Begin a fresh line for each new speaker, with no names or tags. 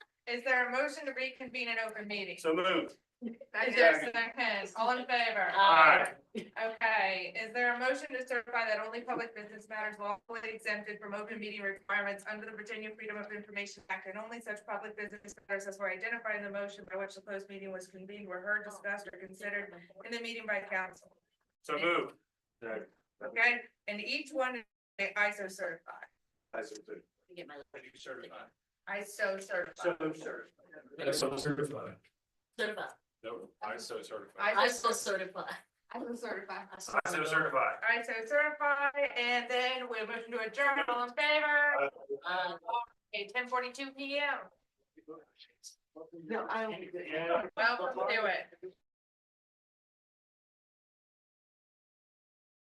Is there a motion to reconvene an open meeting?
So moved.
Is there a second? All in favor?
Aye.
Okay, is there a motion to certify that only public business matters lawfully exempted from open meeting requirements under the Virginia Freedom of Information Act and only such public business matters as were identified in the motion by which the closed meeting was convened were heard, discussed, or considered in the meeting by council?
So moved.
Okay, and each one is ISO certified,
I so moved.
Get my
You certified.
ISO
So
certified.
certified.
so certified.
certified,
No, I so certified.
I
ISO
so
certified.
certified.
ISO certified.
I so certified.
ISO certified, and then we're moving to adjourn, all in favor?
Uh,
Okay, ten forty-two P M.
No, I.
Welcome to it.